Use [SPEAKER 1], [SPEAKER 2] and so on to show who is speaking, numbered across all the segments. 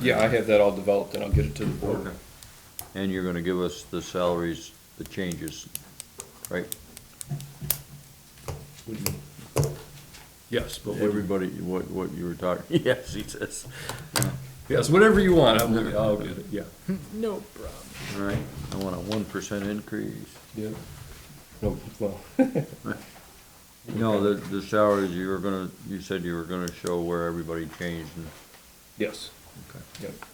[SPEAKER 1] Yeah, I have that all developed and I'll get it to the board.
[SPEAKER 2] Okay. And you're gonna give us the salaries, the changes, right?
[SPEAKER 1] What do you- Yes, but what,
[SPEAKER 2] Everybody, what, what you were talking, yes, he says,
[SPEAKER 1] yes, whatever you want, I'll, I'll get it, yeah.
[SPEAKER 3] No problem.
[SPEAKER 2] all right, I want a one percent increase.
[SPEAKER 1] Yeah. No, well,
[SPEAKER 2] No, the, the salaries, you were gonna, you said you were gonna show where everybody changed and,
[SPEAKER 1] yes,
[SPEAKER 2] okay.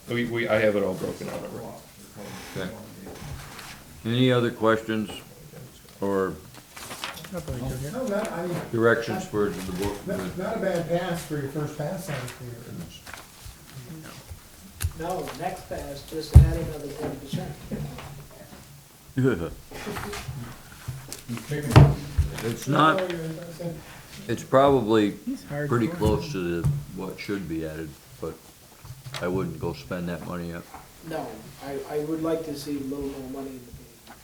[SPEAKER 1] yeah. We, we, I have it all broken out already.
[SPEAKER 2] Okay. Any other questions or
[SPEAKER 4] No, not, I mean,
[SPEAKER 2] directions for the board?
[SPEAKER 4] not, not a bad pass for your first pass on it here.
[SPEAKER 5] No, next pass, just add another ten percent.
[SPEAKER 2] It's not, it's probably pretty close to the, what should be added, but I wouldn't go spend that money up.
[SPEAKER 5] No, I, I would like to see a little more money in the game.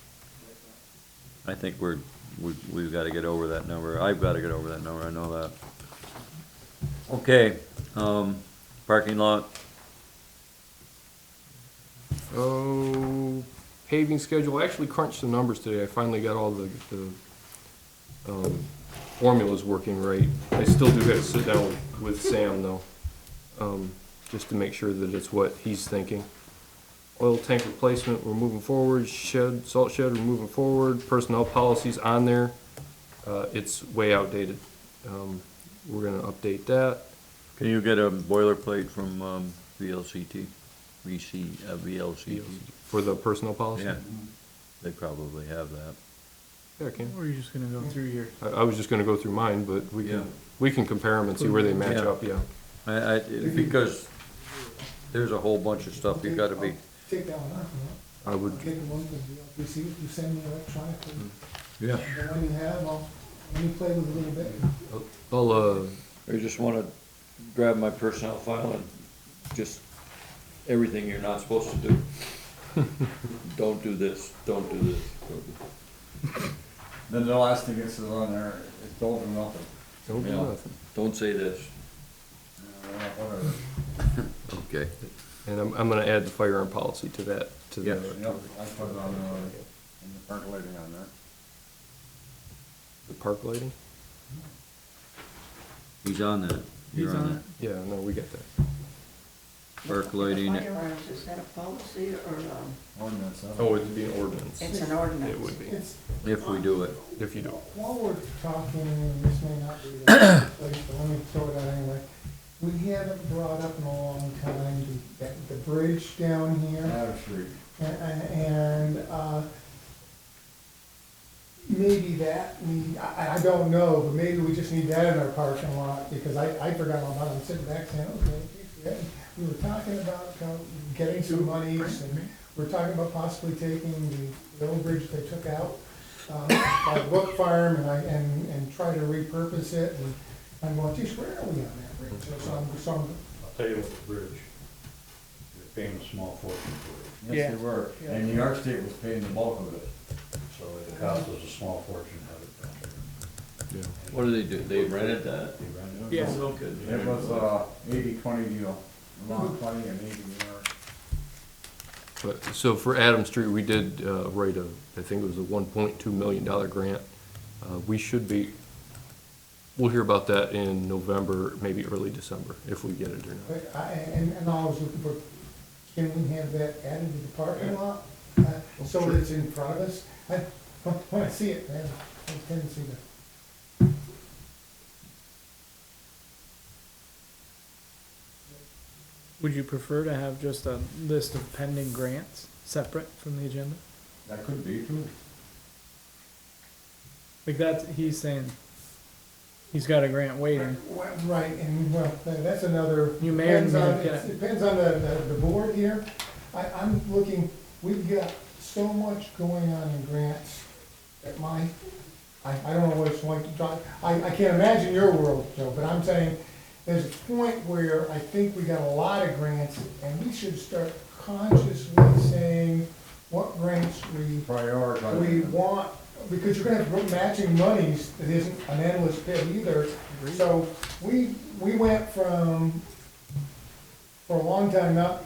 [SPEAKER 2] I think we're, we, we've gotta get over that number, I've gotta get over that number, I know that. Okay, um, parking lot,
[SPEAKER 1] Oh, paving schedule, I actually crunched the numbers today, I finally got all the, the, um, formulas working right. I still do gotta sit down with Sam though, um, just to make sure that it's what he's thinking. Oil tank replacement, we're moving forward, shed, salt shed, we're moving forward, personnel policies on there, uh, it's way outdated. Um, we're gonna update that.
[SPEAKER 2] can you get a boilerplate from, um, VLCT? VC, uh, VLCT?
[SPEAKER 1] For the personnel policy?
[SPEAKER 2] Yeah, they probably have that.
[SPEAKER 1] Yeah, I can.
[SPEAKER 3] We're just gonna go through here.
[SPEAKER 1] I, I was just gonna go through mine, but we
[SPEAKER 2] Yeah.
[SPEAKER 1] can, we can compare them and see where they match
[SPEAKER 2] Yeah.
[SPEAKER 1] up, yeah.
[SPEAKER 2] I, I, because there's a whole bunch of stuff you gotta be,
[SPEAKER 4] Take that one off,
[SPEAKER 1] I
[SPEAKER 4] you know,
[SPEAKER 1] would,
[SPEAKER 4] I'll get the one that you, you see, you send me electronically,
[SPEAKER 2] yeah.
[SPEAKER 4] the one you have, I'll, let me play with it a little bit.
[SPEAKER 1] I'll, uh,
[SPEAKER 2] I just wanna grab my personnel file and just everything you're not supposed to do. Don't do this, don't do this. don't do-
[SPEAKER 6] Then the last thing that's on there is don't do nothing.
[SPEAKER 1] don't do
[SPEAKER 2] Yeah.
[SPEAKER 1] nothing.
[SPEAKER 2] Don't say this.
[SPEAKER 6] Uh, Whatever.
[SPEAKER 2] Okay.
[SPEAKER 1] And I'm, I'm gonna add the firearm policy to that, to
[SPEAKER 2] Yeah.
[SPEAKER 1] the,
[SPEAKER 6] Yep, I put it on, uh, in the percolating on there.
[SPEAKER 1] the park lighting?
[SPEAKER 2] He's on that. You're
[SPEAKER 3] He's on
[SPEAKER 1] Yeah, no, we get that.
[SPEAKER 2] Percolating.
[SPEAKER 7] Firearms, is that a policy or, um,
[SPEAKER 6] Ordinance, huh?
[SPEAKER 1] Oh, it'd be an ordinance.
[SPEAKER 7] it's an ordinance?
[SPEAKER 1] It would be,
[SPEAKER 4] It's,
[SPEAKER 2] If we do it.
[SPEAKER 1] if you do.
[SPEAKER 4] while we're talking, and this may not be the right place, but let me throw it out anyway. We haven't brought up in a long time the, the bridge down here.
[SPEAKER 6] Matter Street.
[SPEAKER 4] And, uh, maybe that, we, I, I don't know, but maybe we just need that in our parking lot, because I, I forgot all about it, I'm sitting back saying, okay, yeah, we were talking about uh, getting some monies, and we're talking about possibly taking the old bridge they took out, uh, by Brook Farm, and I, and, and try to repurpose it, and I'm going, geez, where are we on that bridge? So, so I'm- so I'm
[SPEAKER 8] I'll tell you what, the bridge, they're paying a small fortune for
[SPEAKER 6] Yes, they were. And New York State was paying the bulk of it.
[SPEAKER 8] it, so it cost us a small fortune to have it done.
[SPEAKER 2] What do they do? They rented that?
[SPEAKER 8] They ran it.
[SPEAKER 3] Yeah.
[SPEAKER 6] It was, uh, eighty, twenty deal. Long twenty and eighty New York.
[SPEAKER 1] But, so for Adam Street, we did, uh, write a, I think it was a one point two million dollar grant. Uh, we should be, we'll hear about that in November, maybe early December, if we get it or not.
[SPEAKER 4] But I, and, and I was looking for, can we have that added to the parking lot? Uh, So that it's in front of us? I, when I see it, man, I tend to see that.
[SPEAKER 3] Would you prefer to have just a list of pending grants separate from the agenda?
[SPEAKER 6] That could be too.
[SPEAKER 3] Like that's, he's saying, he's got a grant waiting.
[SPEAKER 4] Well, Right, and well, tha- that's another.
[SPEAKER 3] You may or
[SPEAKER 4] depends
[SPEAKER 3] may
[SPEAKER 4] on-
[SPEAKER 3] not get
[SPEAKER 4] it
[SPEAKER 3] it.
[SPEAKER 4] Depends on the, the, the board here. I, I'm looking, we've got so much going on in grants that my, I, I don't know what it's like to talk, I, I can't imagine your world, Joe, but I'm saying there's a point where I think we got a lot of grants and we should start consciously saying what grants we
[SPEAKER 6] Prioritize.
[SPEAKER 4] we want, because you're gonna have matching monies that isn't an endless pit either. So we, we went from, for a long time, not